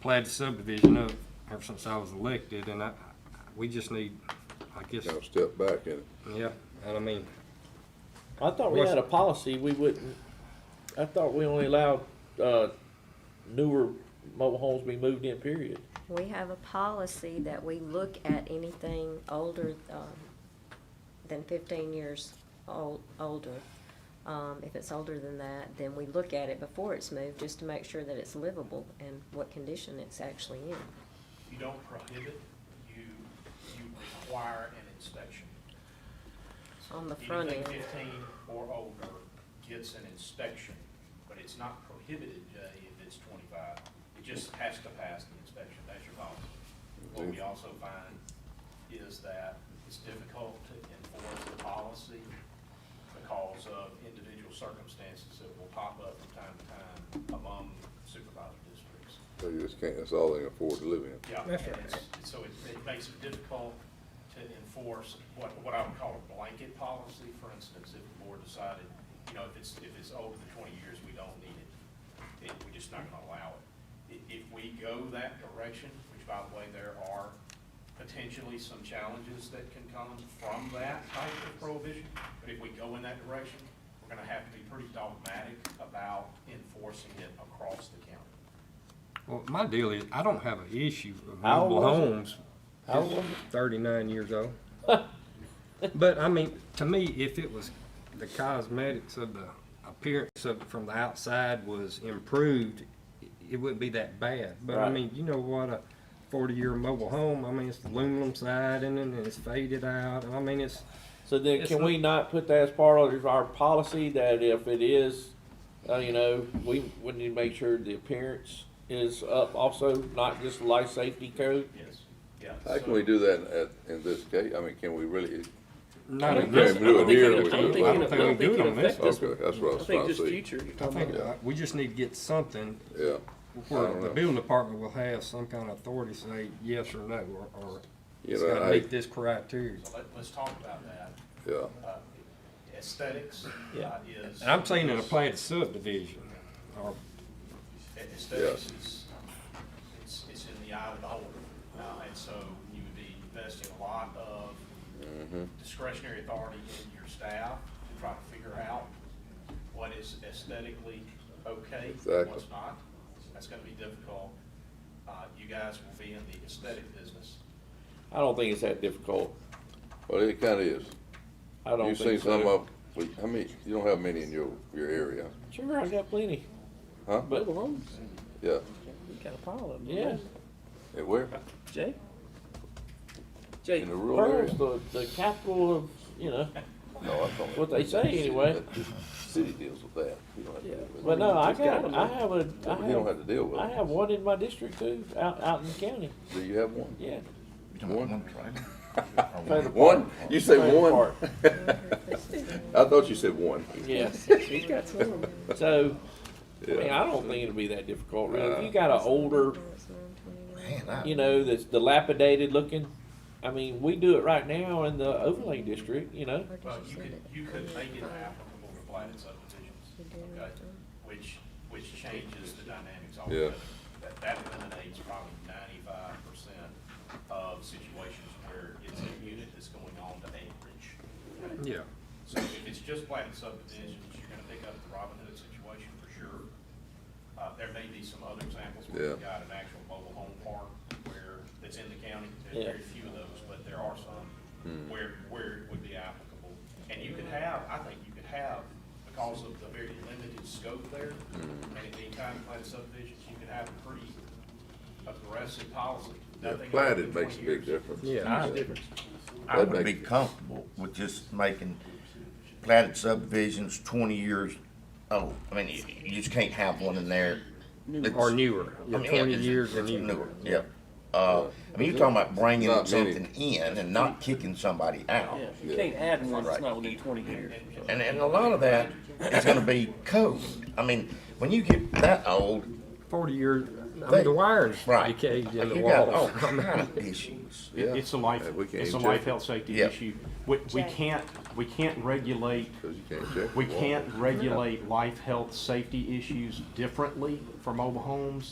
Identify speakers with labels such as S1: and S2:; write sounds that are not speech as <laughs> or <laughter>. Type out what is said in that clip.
S1: platted subdivision up ever since I was elected, and I, we just need, I guess,
S2: Kind of step back in it.
S1: yeah, and I mean,
S3: I thought we
S1: What's-
S3: had a policy, we wouldn't, I thought we only allowed, uh, newer mobile homes be moved in, period.
S4: We have a policy that we look at anything older, um, than fifteen years old, older. Um, if it's older than that, then we look at it before it's moved, just to make sure that it's livable and what condition it's actually in.
S5: You don't prohibit, you, you require an inspection.
S4: On the front end.
S5: Anything fifteen or older gets an inspection, but it's not prohibited, Jay, if it's twenty-five. It just has to pass the inspection, that's your policy. What we also find is that it's difficult to enforce the policy because of individual circumstances that will pop up from time to time among supervisor districts.
S2: So you just can't, that's all they can afford to live in.
S5: Yeah, and
S1: That's
S5: it's, so it, it makes it difficult to enforce what, what I would call a blanket policy, for instance, if the board decided, you know, if it's, if it's older than twenty years, we don't need it. It, we're just not gonna allow it. I- If, we go that direction, which by the way, there are potentially some challenges that can come from that type of prohibition, but if we go in that direction, we're gonna have to be pretty dogmatic about enforcing it across the county.
S1: well, my deal is, I don't have an issue of
S3: How old
S1: mobile
S3: was it?
S1: homes.
S3: How old was
S1: Thirty-nine years
S3: <laughs>
S1: old. But I mean, to me, if it was, the cosmetics of the appearance of, from the outside was improved, i- it wouldn't be that bad. But I
S3: Right.
S1: mean, you know what, a forty-year mobile home, I mean, it's aluminum siding and it's faded out, and I mean, it's,
S3: So then,
S1: It's
S3: can we not put that as part of our policy, that if it is, uh, you know, we, we need to make sure the appearance is up also, not just life safety code?
S5: Yes, yeah.
S2: How
S5: so-
S2: can we do that at, in this case? I mean, can we really,
S1: not
S2: I
S1: in
S2: don't
S1: this.
S2: think we do it here,
S1: I
S2: we
S1: don't
S2: do it
S1: think- I don't
S2: later.
S1: think we do it on this.
S2: okay, that's what I was trying to see.
S1: I think uh, we just need to get something
S2: Yeah, I
S1: where
S2: don't
S1: the
S2: know.
S1: building department will have some kind of authority to say yes or no, or, or
S2: you
S1: it's
S2: know,
S1: gotta
S2: I,
S1: meet this criteria.
S5: So let, let's talk about that.
S2: yeah,
S5: Uh, Aesthetics
S3: Yeah.
S5: uh, is.
S1: And I'm saying in a planned subdivision, or,
S5: Aesthetics is, it's, it's in the eye of the beholder. Uh, and so you would be investing a lot of discretionary authority in your staff to try to figure out what is aesthetically okay,
S2: Exactly.
S5: and what's not. That's gonna be difficult. Uh, you guys will be in the aesthetic business.
S3: I don't think it's that difficult.
S2: well, it kinda is.
S3: I don't
S2: You've seen
S3: think
S2: some
S3: so.
S2: of, we- how many, you don't have many in your, your area,
S3: Sure, I got plenty,
S2: huh?
S3: but,
S2: Yeah,
S6: We got a pile of them.
S3: yeah.
S2: and where?
S6: Jay?
S2: In
S6: Jay,
S2: the rural
S3: Pearl's
S2: area?
S3: the, the capital of, you know,
S2: No, I don't.
S3: What they say anyway.
S2: City deals with that. You don't have to deal with it.
S3: but no, I
S2: Just gotta
S3: got,
S2: know.
S3: I have a, I
S2: You don't have
S3: have,
S2: to deal with
S3: I
S2: it.
S3: have one in my district too, out, out in the county,
S2: Do you have one?
S3: yeah.
S2: One? <laughs>
S3: Play the part.
S2: One? You say
S3: Play the
S2: one?
S3: part.
S2: I thought you said one.
S3: Yeah,
S6: <laughs> he's got some of them.
S3: so, I mean,
S2: Yeah.
S3: I don't think it'll be that difficult, really. If
S2: Yeah.
S3: you got an older, you know, that's dilapidated looking, I mean, we do it right now in the overlay district, you know?
S5: Well, you could, you could make it applicable to platted subdivisions, okay, which, which changes the dynamics altogether. That, that eliminates probably ninety-five percent of situations where it's a unit that's going on to acreage. okay?
S1: yeah,
S5: So if it's just planted subdivisions, you're gonna pick up the Robin Hood situation for sure. Uh, there may be some other examples where you've
S2: Yeah.
S5: got an actual mobile home park where, that's in the county, there's
S3: Yeah.
S5: very few of those, but there are
S2: Hmm.
S5: some where, where it would be applicable. And you could have, I think you could have, because of the very limited scope there,
S2: Hmm.
S5: and it being time to plant subdivisions, you could have a pretty aggressive policy.
S2: Yeah,
S5: Nothing over
S2: platted
S5: 20
S2: makes a big
S5: years.
S2: difference.
S1: yeah.
S7: I I would be comfortable with just making platted subdivisions twenty years old. I mean, you, you just can't have one in there. that's-
S1: Or newer,
S7: I mean, yeah,
S1: twenty
S7: it's-
S1: years and
S7: it's
S1: newer.
S7: Newer, yeah. Uh, I mean, you're talking about bringing
S2: Not many.
S7: something in and not kicking somebody out.
S6: Yeah, you can't add one that's
S7: Right.
S6: not within twenty years.
S7: And, and a lot of that is gonna be code. I mean, when you get that old,
S1: Forty years, I mean,
S7: They-
S1: the wiring's
S7: right, you
S1: decayed in the
S7: got all
S1: walls. I mean,
S7: kind of issues.
S2: Yeah.
S8: It's a life,
S2: And Uh, we can't
S8: it's a
S2: check
S8: life
S2: it.
S8: health safety
S7: Yeah.
S8: issue. We, we can't, we can't regulate,
S2: 'Cause you can't check.
S8: we
S2: the wall.
S8: can't regulate life health safety issues differently for mobile homes